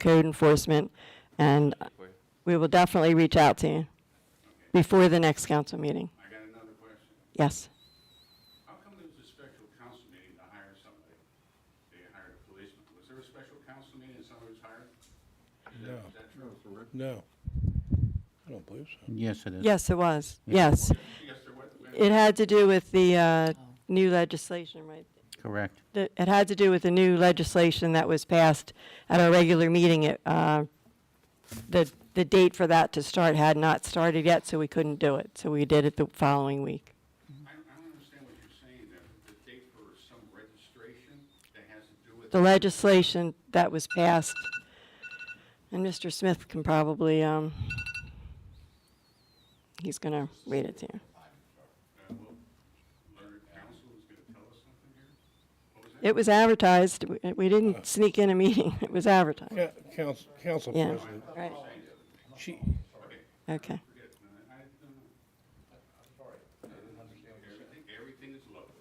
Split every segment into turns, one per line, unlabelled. code enforcement, and
for you.
we will definitely reach out to you before the next council meeting.
I got another question.
Yes.
How come there was a special council meeting to hire somebody? They hired a policeman. Was there a special council meeting and somebody was hired? Is that-
No.
Is that true?
No. I don't believe so.
Yes, it is.
Yes, it was. Yes.
Yes, there was.
It had to do with the uh, new legislation, right?
Correct.
The- It had to do with the new legislation that was passed at our regular meeting. It, uh, The, the date for that to start had not started yet, so we couldn't do it. So we did it the following week.
I, I don't understand what you're saying, that the date for some registration that has to do with. uh,
The legislation that was passed, and Mr. Smith can probably, um, he's going to read it to you.
Uh, well, Learned Council is gonna tell us something here? What was that?
It was advertised. We- We didn't sneak in a meeting. It was advertised.
Ca- Council, council
Yeah.
president,
Right,
she,
okay.
Forget, uh, I don't know. Everything, everything is local.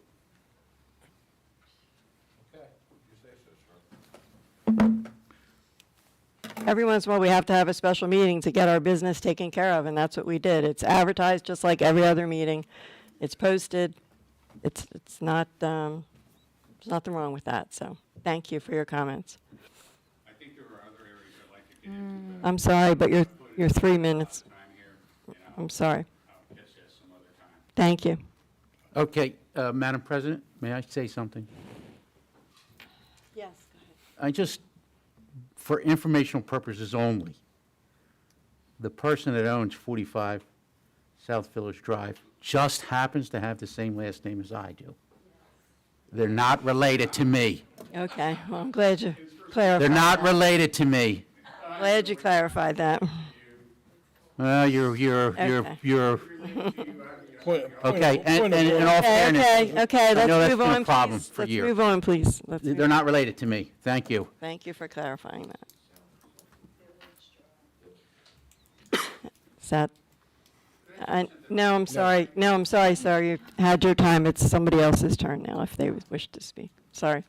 Every once in a while, we have to have a special meeting to get our business taken care of, and that's what we did. It's advertised just like every other meeting. It's posted. It's, it's not, um, there's nothing wrong with that, so thank you for your comments.
I think there are other areas I'd like to get into, but
I'm sorry, but you're, you're three minutes.
I'm here, you know,
I'm sorry.
I'll catch that some other time.
Thank you.
Okay, uh, Madam President, may I say something?
Yes.
I just, for informational purposes only, the person that owns 45 South Village Drive just happens to have the same last name as I do. They're not related to me.
Okay, well, I'm glad you
They're
clarified,
not related to me.
glad you clarified that.
Well, you're, you're, you're,
Okay.
you're,
point, point
okay,
of-
and,
point of
and in
order.
all
Okay,
fairness,
okay, okay,
I know
let's
that's
move
been a
on,
problem
please.
for
Let's
years.
move on, please. Let's move
they're not related to me. Thank you.
Thank you for clarifying that. Is that, I, no, I'm sorry, no, I'm sorry, sir, you had your time, it's somebody else's turn now if they wish to speak, sorry.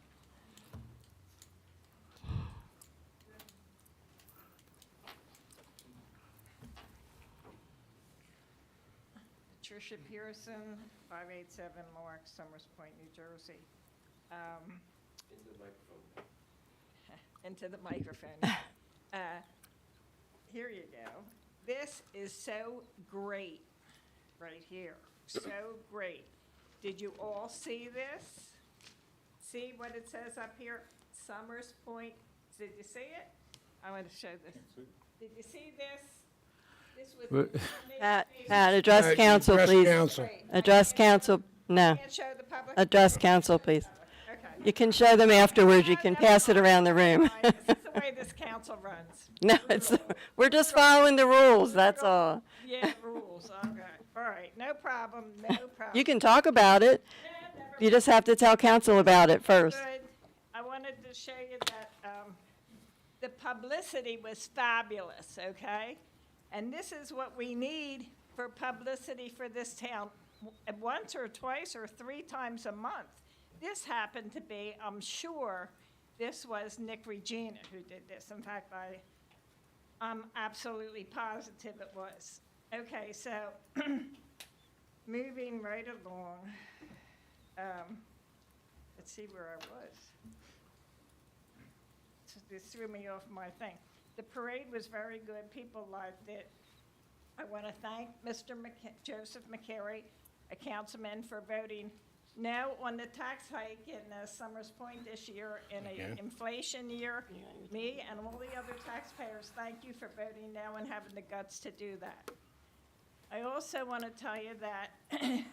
Tricia Pearson, 587 Mark, Summers Point, New Jersey. Um, Into the microphone. Uh, Here you go. This is so great, right here. So great. Did you all see this? See what it says up here? Summers Point, did you see it? I want to show this. Did you see this? This was.
Pat, Pat, address
Alright,
council,
address
please.
council.
Address council, no,
Can't show the public?
address council, please.
Okay.
You can show them afterwards, you can pass it around the room.
Fine, This is the way this council runs.
No, it's, we're just following the rules, that's all.
Yeah, rules, okay. All right, no problem, no problem.
You can talk about it,
Yeah, never
you just have to tell council about it first.
Good. I wanted to show you that um, the publicity was fabulous, okay? And this is what we need for publicity for this town, w- once or twice or three times a month. This happened to be, I'm sure, this was Nick Regina who did this. In fact, I, I'm absolutely positive it was. Okay, so moving right along. Um, Let's see where I was. So This threw me off my thing. The parade was very good. People liked it. I want to thank Mr. Mc- Joseph McCary, a councilman, for voting no on the tax hike in uh, Summers Point this year in
Okay.
an inflation year. Me and all the other taxpayers, thank you for voting no and having the guts to do that. I also want to tell you that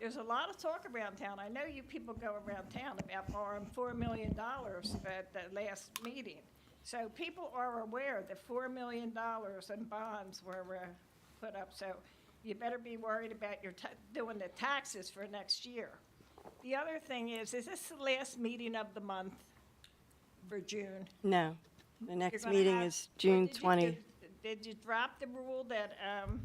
there's a lot of talk around town. I know you people go around town about borrowing four million dollars at the last meeting. So people are aware that four million dollars in bonds were uh, put up, so you better be worried about your, ta- doing the taxes for next year. The other thing is, is this the last meeting of the month for June?
No, the
You're
next
gonna
meeting
have-
is
or
June
did you-
20.
did- Did you drop the rule that um,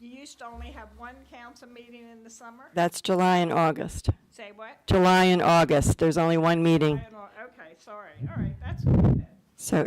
you used to only have one council meeting in the summer?
That's July and August.
Say what?
July and August, there's only one meeting.
I don't- Okay, sorry, all right, that's what I did.
So